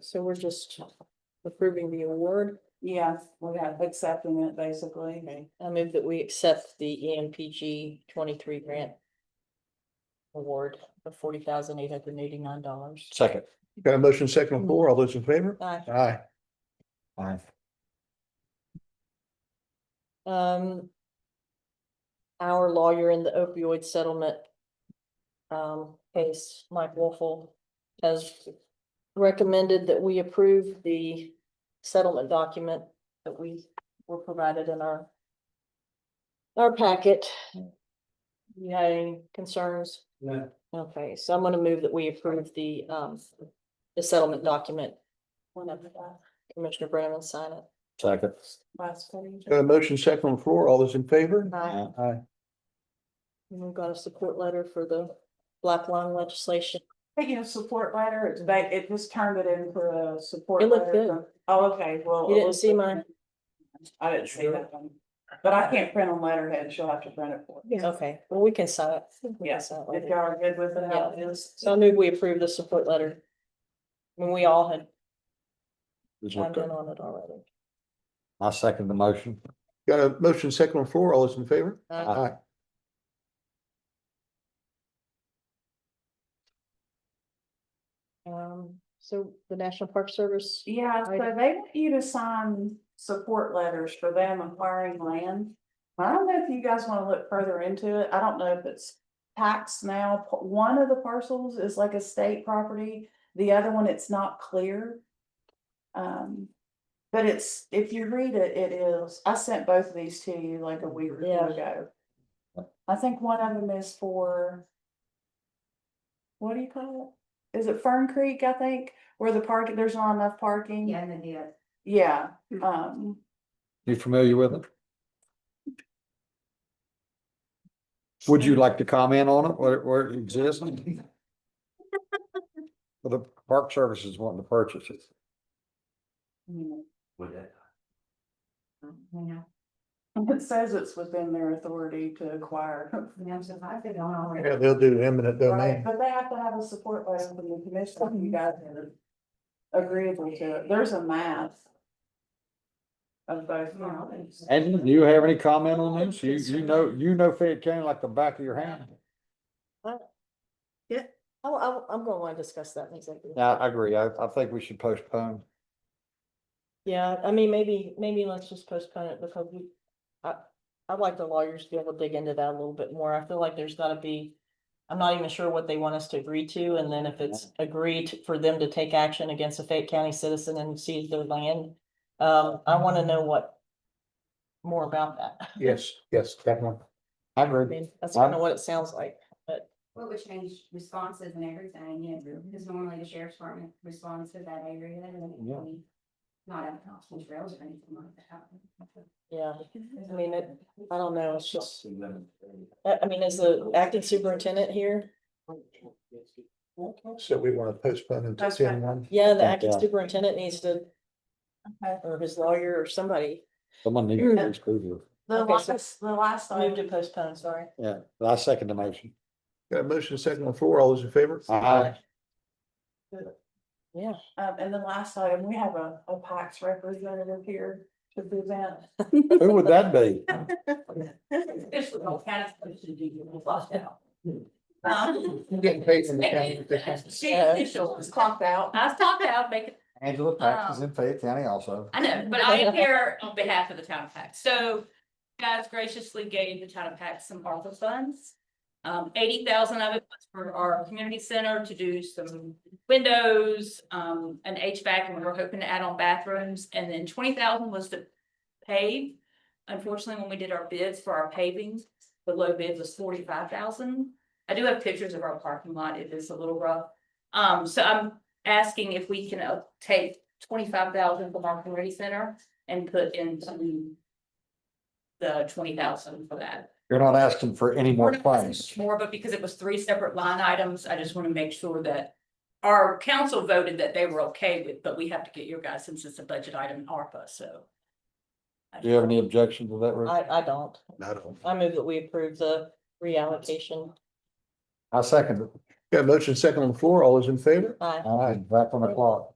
so we're just approving the award. Yeah, we got accepting it basically. Okay, I move that we accept the E EMPG twenty-three grant award of forty thousand eight hundred and eighty-nine dollars. Second. Got a motion second on the floor. All those in favor? Aye. Aye. Um. Our lawyer in the opioid settlement. Um, case, Mike Wolfle has recommended that we approve the settlement document that we were provided in our. Our packet. You had any concerns? No. Okay, so I'm gonna move that we approve the, um, the settlement document. Whenever uh, Commissioner Brennan sign it. Second. Last page. Got a motion second on the floor. All those in favor? Aye. Aye. And We've got a support letter for the black lung legislation. Speaking of support letter, it's ba- it just turned it into a support. It looked letter good. from- Oh, okay, well. You it didn't was- see mine? I didn't see that one, but I can't print on letterhead, she'll have to print it for. me. Okay, well, we can sign it. We can Yeah, sign it If later. y'all are good with it, how it Yeah. is. So I move we approve the support letter. When we all had This chimed looked in good. on it already. I second the motion. Got a motion second on the floor. All those in favor? Uh, Aye. Aye. uh, Um, so the National Park Service, Yeah, so I- they want you to sign support letters for them acquiring land. I don't know if you guys wanna look further into it, I don't know if it's taxed now, P- one of the parcels is like a state property, the other one, it's not clear. Um, but it's, if you read it, it is, I sent both of these to you like a week or two Yeah. ago. I think one of them is for. What do you call it? Is it Fern Creek, I think, where the park, there's not enough parking? Yeah, and then the other. Yeah, Mm. um, You familiar with it? Would you like to comment on it, where, where it exists? Well, the Park Service is wanting to purchase it. you Would that? You know, it says it's within their authority to acquire. know, so I've been on all Yeah, right. they'll do eminent Right, domain. but they have to have a support letter from the commission, if you guys are agreeable to it, there's a map. Of both. Yeah, I'll do counties. so. And do you have any comment on this? You, you know, you know Fayette County like the back of your hand. I, I, I'm gonna wanna discuss that in executive. Yeah, I agree. I, I think we should postpone. Yeah, I mean, maybe, maybe let's just postpone it because we, I, I'd like the lawyers to be able to dig into that a little bit more. I feel like there's gotta be. I'm not even sure what they want us to agree to, and then if it's agreed for them to take action against a Fayette County citizen and seize their land, um, I wanna know what. More about that. Yes, yes, definitely. I I agree. mean, that's kinda what it sounds like. Well, it would change responses and everything, you know, because normally the sheriff's department responds to that area and Yeah. we not have constant trails or anything like that. Yeah, I mean, it, I don't know, it's just, I, I mean, is the acting superintendent here? So we want to postpone until That's ten fine. one. Yeah, the Yeah. acting superintendent needs to, Okay. or his lawyer or somebody. Someone needs Mm. to exclude you. The Okay, so- last, the last Move to item, postpone, sorry. Yeah, I second the motion. Got a motion second on the floor. All those in favor? Aye. Yeah, um, and the last item, we have a, a PAX representative here to present. Who would that be? Especially all cats, they should be flushed out. Um, I'm getting paid from She Uh, official It's was called, clocked out. I was talking out, making Angela Pax is in Fayette County also. I know, but I am here on behalf of the town of Pax. So guys graciously gave the town of Pax some ARPA funds. Um, eighty thousand of it was for our community center to do some windows, um, an HVAC, and we were hoping to add on bathrooms. And then twenty thousand was to pave. Unfortunately, when we did our bids for our paving, the low bid was forty-five thousand. I do have pictures of our parking lot. It is a little rough. Um, so I'm asking if we can uh, take twenty-five thousand from our community center and put into the twenty thousand for that. You're not asking for any more It's claims. More, but because it was three separate line items, I just want to make sure that our council voted that they were okay with, but we have to get your guys since it's a budget item in ARPA, so. Do you have any objection to that? Ruth? I, I don't. Not on. I move that we approve the reallocation. I second it. Got a motion second on the floor. All those in favor? Aye. All right, back on the clock.